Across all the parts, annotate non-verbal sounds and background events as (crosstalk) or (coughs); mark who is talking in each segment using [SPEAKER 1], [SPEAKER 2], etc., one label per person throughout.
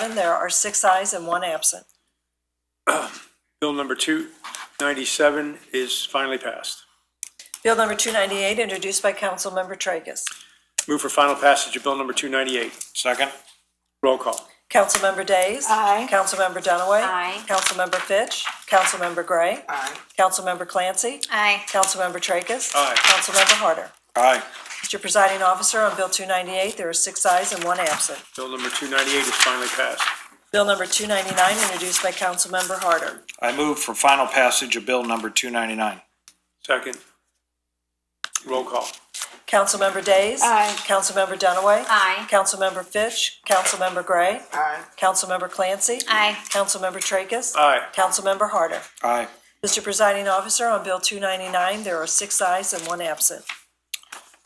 [SPEAKER 1] And there are six ayes and one absent.
[SPEAKER 2] Bill number 297 is finally passed.
[SPEAKER 1] Bill number 298, introduced by Councilmember Tracus.
[SPEAKER 2] Move for final passage of bill number 298.
[SPEAKER 3] Second?
[SPEAKER 2] Roll call.
[SPEAKER 1] Councilmember Days.
[SPEAKER 4] Aye.
[SPEAKER 1] Councilmember Dunaway.
[SPEAKER 5] Aye.
[SPEAKER 1] Councilmember Fitch. Councilmember Gray.
[SPEAKER 4] Aye.
[SPEAKER 1] Councilmember Clancy.
[SPEAKER 5] Aye.
[SPEAKER 1] Councilmember Tracus.
[SPEAKER 2] Aye.
[SPEAKER 1] Councilmember Harder.
[SPEAKER 3] Aye.
[SPEAKER 1] Mr. Presiding Officer, on Bill 298, there are six ayes and one absent.
[SPEAKER 2] Bill number 298 is finally passed.
[SPEAKER 1] Bill number 299, introduced by Councilmember Harder.
[SPEAKER 3] I move for final passage of bill number two ninety-nine.
[SPEAKER 2] Second. Roll call.
[SPEAKER 1] Councilmember Days.
[SPEAKER 4] Aye.
[SPEAKER 1] Councilmember Dunaway.
[SPEAKER 5] Aye.
[SPEAKER 1] Councilmember Fitch. Councilmember Gray.
[SPEAKER 4] Aye.
[SPEAKER 1] Councilmember Clancy.
[SPEAKER 5] Aye.
[SPEAKER 1] Councilmember Tracus.
[SPEAKER 2] Aye.
[SPEAKER 1] Councilmember Harder.
[SPEAKER 3] Aye.
[SPEAKER 1] Mr. Presiding Officer, on Bill 299, there are six ayes and one absent.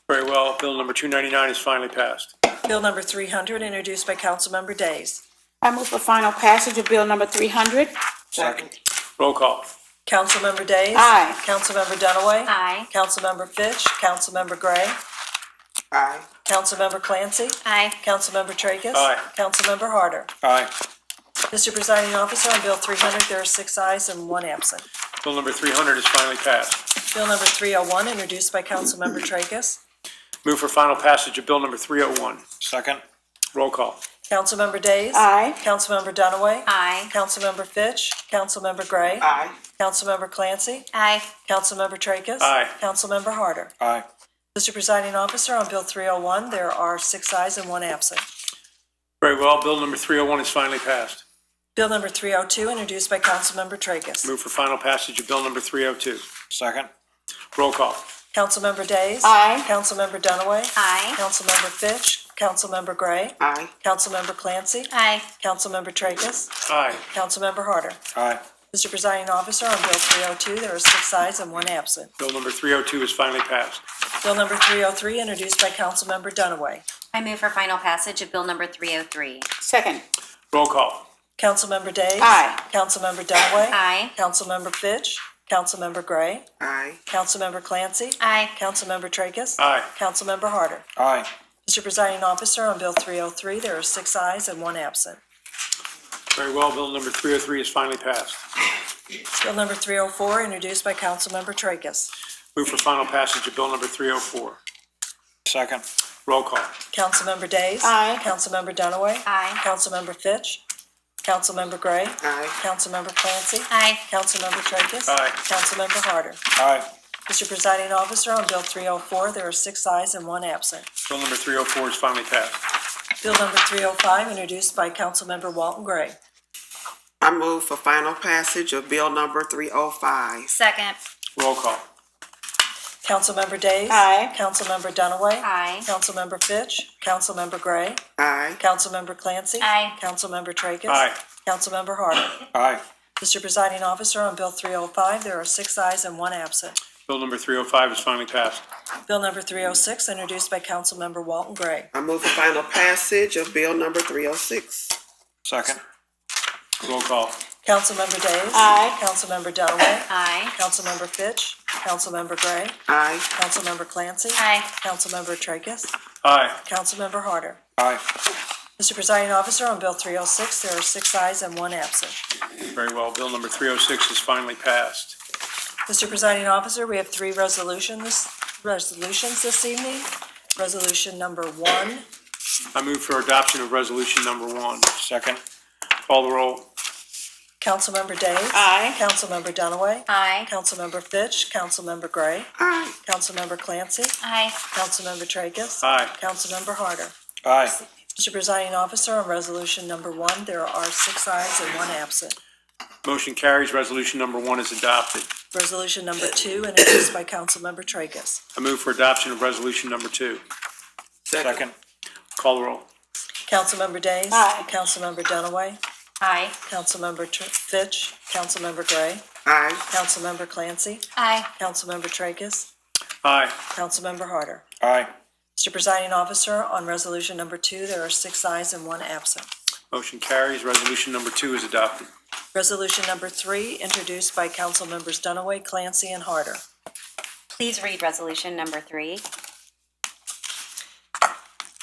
[SPEAKER 2] Very well, bill number 299 is finally passed.
[SPEAKER 1] Bill number 300, introduced by Councilmember Days.
[SPEAKER 4] I move for final passage of bill number three hundred.
[SPEAKER 3] Second.
[SPEAKER 2] Roll call.
[SPEAKER 1] Councilmember Days.
[SPEAKER 4] Aye.
[SPEAKER 1] Councilmember Dunaway.
[SPEAKER 5] Aye.
[SPEAKER 1] Councilmember Fitch. Councilmember Gray.
[SPEAKER 4] Aye.
[SPEAKER 1] Councilmember Clancy.
[SPEAKER 5] Aye.
[SPEAKER 1] Councilmember Tracus.
[SPEAKER 2] Aye.
[SPEAKER 1] Councilmember Harder.
[SPEAKER 3] Aye.
[SPEAKER 1] Mr. Presiding Officer, on Bill 300, there are six ayes and one absent.
[SPEAKER 2] Bill number 300 is finally passed.
[SPEAKER 1] Bill number 301, introduced by Councilmember Tracus.
[SPEAKER 2] Move for final passage of bill number 301.
[SPEAKER 3] Second?
[SPEAKER 2] Roll call.
[SPEAKER 1] Councilmember Days.
[SPEAKER 4] Aye.
[SPEAKER 1] Councilmember Dunaway.
[SPEAKER 5] Aye.
[SPEAKER 1] Councilmember Fitch. Councilmember Gray.
[SPEAKER 4] Aye.
[SPEAKER 1] Councilmember Clancy.
[SPEAKER 5] Aye.
[SPEAKER 1] Councilmember Tracus.
[SPEAKER 2] Aye.
[SPEAKER 1] Councilmember Harder.
[SPEAKER 3] Aye.
[SPEAKER 1] Mr. Presiding Officer, on Bill 301, there are six ayes and one absent.
[SPEAKER 2] Very well, bill number 301 is finally passed.
[SPEAKER 1] Bill number 302, introduced by Councilmember Tracus.
[SPEAKER 2] Move for final passage of bill number 302.
[SPEAKER 3] Second?
[SPEAKER 2] Roll call.
[SPEAKER 1] Councilmember Days.
[SPEAKER 4] Aye.
[SPEAKER 1] Councilmember Dunaway.
[SPEAKER 5] Aye.
[SPEAKER 1] Councilmember Fitch. Councilmember Gray.
[SPEAKER 4] Aye.
[SPEAKER 1] Councilmember Clancy.
[SPEAKER 5] Aye.
[SPEAKER 1] Councilmember Tracus.
[SPEAKER 2] Aye.
[SPEAKER 1] Councilmember Harder.
[SPEAKER 3] Aye.
[SPEAKER 1] Mr. Presiding Officer, on Bill 302, there are six ayes and one absent.
[SPEAKER 2] Bill number 302 is finally passed.
[SPEAKER 1] Bill number 303, introduced by Councilmember Dunaway.
[SPEAKER 5] I move for final passage of bill number 303.
[SPEAKER 4] Second.
[SPEAKER 2] Roll call.
[SPEAKER 1] Councilmember Days.
[SPEAKER 4] Aye.
[SPEAKER 1] Councilmember Dunaway.
[SPEAKER 5] Aye.
[SPEAKER 1] Councilmember Fitch. Councilmember Gray.
[SPEAKER 4] Aye.
[SPEAKER 1] Councilmember Clancy.
[SPEAKER 5] Aye.
[SPEAKER 1] Councilmember Tracus.
[SPEAKER 2] Aye.
[SPEAKER 1] Councilmember Harder.
[SPEAKER 3] Aye.
[SPEAKER 1] Mr. Presiding Officer, on Bill 303, there are six ayes and one absent.
[SPEAKER 2] Very well, bill number 303 is finally passed.
[SPEAKER 1] Bill number 304, introduced by Councilmember Tracus.
[SPEAKER 2] Move for final passage of bill number 304.
[SPEAKER 3] Second?
[SPEAKER 2] Roll call.
[SPEAKER 1] Councilmember Days.
[SPEAKER 4] Aye.
[SPEAKER 1] Councilmember Dunaway.
[SPEAKER 5] Aye.
[SPEAKER 1] Councilmember Fitch. Councilmember Gray.
[SPEAKER 4] Aye.
[SPEAKER 1] Councilmember Clancy.
[SPEAKER 5] Aye.
[SPEAKER 1] Councilmember Tracus.
[SPEAKER 2] Aye.
[SPEAKER 1] Councilmember Harder.
[SPEAKER 3] Aye.
[SPEAKER 1] Mr. Presiding Officer, on Bill 304, there are six ayes and one absent.
[SPEAKER 2] Bill number 304 is finally passed.
[SPEAKER 1] Bill number 305, introduced by Councilmember Walton Gray.
[SPEAKER 6] I move for final passage of bill number three oh five.
[SPEAKER 5] Second.
[SPEAKER 2] Roll call.
[SPEAKER 1] Councilmember Days.
[SPEAKER 4] Aye.
[SPEAKER 1] Councilmember Dunaway.
[SPEAKER 5] Aye.
[SPEAKER 1] Councilmember Fitch. Councilmember Gray.
[SPEAKER 6] Aye.
[SPEAKER 1] Councilmember Clancy.
[SPEAKER 5] Aye.
[SPEAKER 1] Councilmember Tracus.
[SPEAKER 2] Aye.
[SPEAKER 1] Councilmember
[SPEAKER 3] (coughs)
[SPEAKER 1] Harder.
[SPEAKER 3] Aye.
[SPEAKER 1] Mr. Presiding Officer, on Bill 305, there are six ayes and one absent.
[SPEAKER 2] Bill number 305 is finally passed.
[SPEAKER 1] Bill number 306, introduced by Councilmember Walton Gray.
[SPEAKER 6] I move for final passage of bill number three oh six.
[SPEAKER 3] Second?
[SPEAKER 2] Roll call.
[SPEAKER 1] Councilmember Days.
[SPEAKER 4] Aye.
[SPEAKER 1] Councilmember Dunaway.
[SPEAKER 5] Aye.
[SPEAKER 1] Councilmember Fitch. Councilmember Gray.
[SPEAKER 6] Aye.
[SPEAKER 1] Councilmember Clancy.
[SPEAKER 5] Aye.
[SPEAKER 1] Councilmember Tracus.
[SPEAKER 2] Aye.
[SPEAKER 1] Councilmember Harder.
[SPEAKER 3] Aye.
[SPEAKER 1] Mr. Presiding Officer, on Bill 306, there are six ayes and one absent.
[SPEAKER 2] Very well, bill number 306 is finally passed.
[SPEAKER 1] Mr. Presiding Officer, we have three resolutions, resolutions this evening. Resolution number one,
[SPEAKER 2] I move for adoption of resolution number one.
[SPEAKER 3] Second?
[SPEAKER 2] Call the roll.
[SPEAKER 1] Councilmember Days.
[SPEAKER 4] Aye.
[SPEAKER 1] Councilmember Dunaway.
[SPEAKER 5] Aye.
[SPEAKER 1] Councilmember Fitch, Councilmember Gray,
[SPEAKER 6] Aye.
[SPEAKER 1] Councilmember Clancy,
[SPEAKER 5] Aye.
[SPEAKER 1] Councilmember Tracus.
[SPEAKER 2] Aye.
[SPEAKER 1] Councilmember Harder.
[SPEAKER 3] Aye.
[SPEAKER 1] Mr. Presiding Officer, on resolution number one, there are six ayes and one absent.
[SPEAKER 2] Motion carries. Resolution number one is adopted.
[SPEAKER 1] Resolution number two, introduced by Councilmember Tracus.
[SPEAKER 2] I move for adoption of resolution number two.
[SPEAKER 3] Second?
[SPEAKER 2] Call the roll.
[SPEAKER 1] Councilmember Days.
[SPEAKER 4] Aye.
[SPEAKER 1] Councilmember Dunaway.
[SPEAKER 5] Aye.
[SPEAKER 1] Councilmember Tr- Fitch, Councilmember Gray,
[SPEAKER 6] Aye.
[SPEAKER 1] Councilmember Clancy,
[SPEAKER 5] Aye.
[SPEAKER 1] Councilmember Tracus,
[SPEAKER 2] Aye.
[SPEAKER 1] Councilmember Harder.
[SPEAKER 3] Aye.
[SPEAKER 1] Mr. Presiding Officer, on resolution number two, there are six ayes and one absent.
[SPEAKER 2] Motion carries. Resolution number two is adopted.
[SPEAKER 1] Resolution number three, introduced by Councilmembers Dunaway, Clancy, and Harder.
[SPEAKER 5] Please read resolution number three.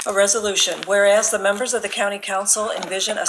[SPEAKER 1] A resolution, whereas the members of the county council envision a